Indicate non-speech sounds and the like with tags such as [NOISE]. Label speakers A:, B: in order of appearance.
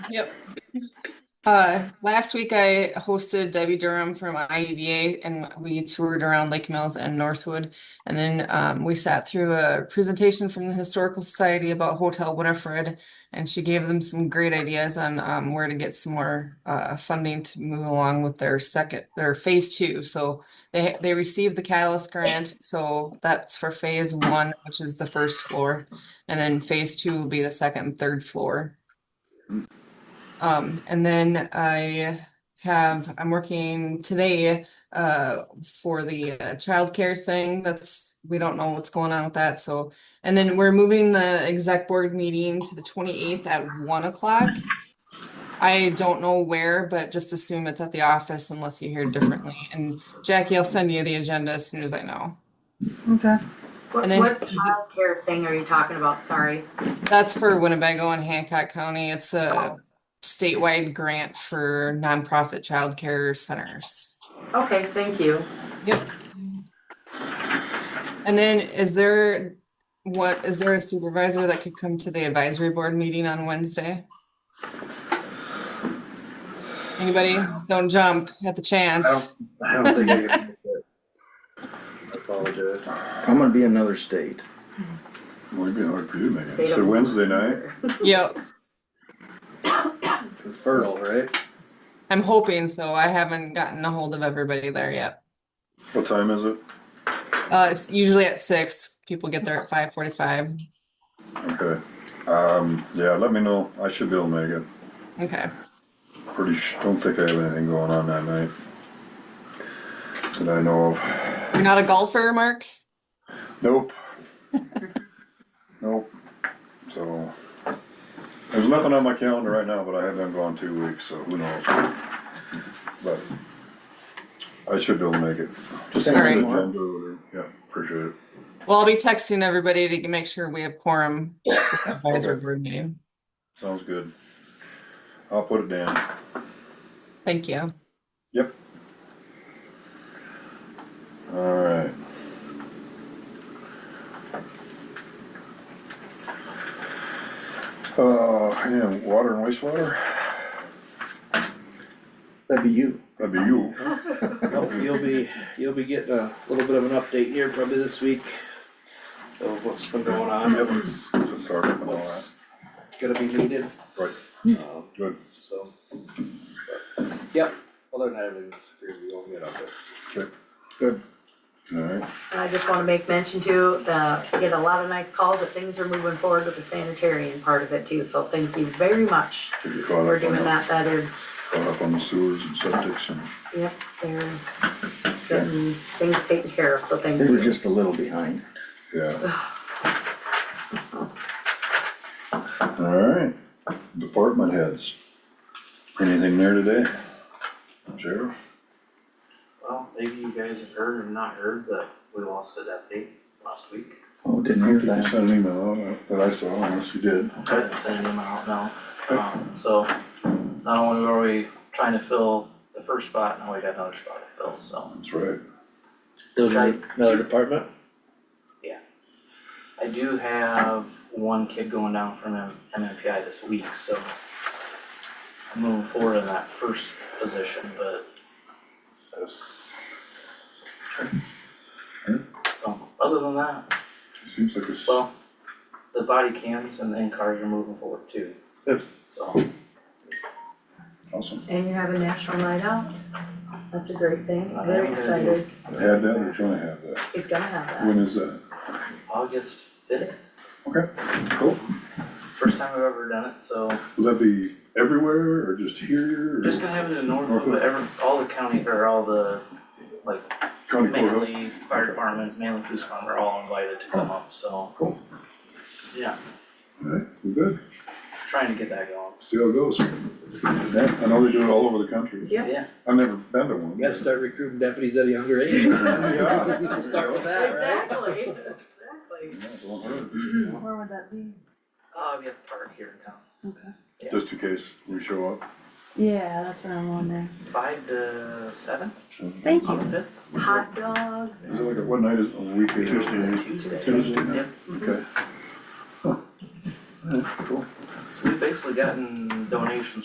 A: Uh, last week I hosted Debbie Durham from IEDA and we toured around Lake Mills and Northwood. And then um, we sat through a presentation from the Historical Society about Hotel Winifred. And she gave them some great ideas on um, where to get some more uh, funding to move along with their second, their phase two. So they, they received the Catalyst Grant. So that's for phase one, which is the first floor. And then phase two will be the second and third floor. Um, and then I have, I'm working today, uh, for the uh, childcare thing. That's, we don't know what's going on with that, so. And then we're moving the exec board meeting to the twenty-eighth at one o'clock. I don't know where, but just assume it's at the office unless you hear differently. And Jackie, I'll send you the agenda as soon as I know.
B: Okay.
C: What,
A: And then-
C: what childcare thing are you talking about? Sorry.
A: That's for Winnebago and Hancock County. It's a statewide grant for nonprofit childcare centers.
C: Okay, thank you.
A: And then is there, what, is there a supervisor that could come to the advisory board meeting on Wednesday? Anybody? Don't jump at the chance.
D: I don't think I can make it. I apologize.
E: I'm gonna be in another state.
F: Might be hard for you to make it.
C: Say
F: It's a
C: don't-
F: Wednesday night.
A: Yep,
D: Fertile, right?
A: I'm hoping so. I haven't gotten a hold of everybody there yet.
F: What time is it?
A: Uh, it's usually at six. People get there at five forty-five.
F: Okay. Um, yeah, let me know. I should be able to make it.
A: Okay,
F: Pretty, sh- don't think I have anything going on that night. That I know of.
A: you're not a golfer, Mark?
F: Nope. Nope. So, there's nothing on my calendar right now, but I have been gone two weeks, so who knows? But I should be able to make it. Just send me the
E: Alright.
F: agenda or- Yeah, appreciate it.
A: Well, I'll be texting everybody to make sure we have quorum. for the Advisory board meeting.
F: Sounds good. I'll put it down.
A: Thank you.
F: Yep. Alright. Uh, yeah, water and wastewater,
E: That'd be you.
F: that'd
D: [LAUGHS]
F: be you.
D: Nope, you'll be, you'll be getting a little bit of an update here probably this week of what's been going on,
F: Yep, it's, it's a start up and all that.
D: what's gonna be needed.
F: Right.
D: Um,
F: Good,
D: so. but, Yep, other than that, everything's pretty, we won't get up there.
F: alright,
C: And I just wanna make mention too, uh, get a lot of nice calls that things are moving forward with the sanitarian part of it too, so thank you very much
F: get you caught
C: for
F: up on
C: doing
F: the,
C: that, that is,
F: caught up on the sewers and septics and,
C: yep, they're getting things taken care of, so thank
E: They were
C: you.
E: just a little behind.
F: yeah. Alright, department heads. Anything there today? Sheriff?
G: Well, maybe you guys have heard or not heard, but we lost a deputy last week.
E: Oh, didn't
F: I
E: hear
F: think you
E: that.
F: sent an email out that I saw, unless you did.
G: I didn't send him out now. Um, so not only were we trying to fill the first spot, now we got another spot to fill, so.
F: That's right.
D: Those are
G: Right.
D: another department?
G: I do have one kid going down from M- MMPI this week, so I'm moving forward in that first position, but. So, um, other than that,
F: It seems like it's,
G: Well, the body cams and the in-cars are moving forward too.
D: Good.
G: So,
F: awesome.
C: And you have a national night out, that's a great thing,
G: I
C: very
G: am gonna do-
C: excited,
F: Had that, we're gonna have that.
C: he's gonna have that.
F: When is that?
G: August fifth,
F: Okay, cool.
G: first time I've ever done it, so
F: Will that be everywhere or just here or
G: just gonna have it in Northwood, but every, all the county, or all the, like,
F: county courthouse?
G: Manly Fire Department, Manly Police Department are all invited to come up, so
F: Cool.
G: Yeah.
F: Alright, we're good.
G: trying to get that going.
F: See how it goes. Yeah, I know they do it all over the country.
C: Yeah.
G: Yeah,
F: I've never been to one.
D: You gotta start recruiting deputies at a younger age. [LAUGHS]
F: Yeah.
D: Start with that, right?
C: Exactly, exactly.
F: Yeah, don't hurt.
B: Where would that be?
G: uh, we have a park here in town,
F: Just in case we show up.
B: Yeah, that's what I'm wondering.
G: five to seven
B: Thank
G: on the fifth,
C: Hot dogs.
F: Is it like a, what night is it, a weekend?
G: Tuesday night. Tuesday.
F: Tuesday night,
G: Yep.
F: okay. Huh. Alright, cool.
G: so we've basically gotten donations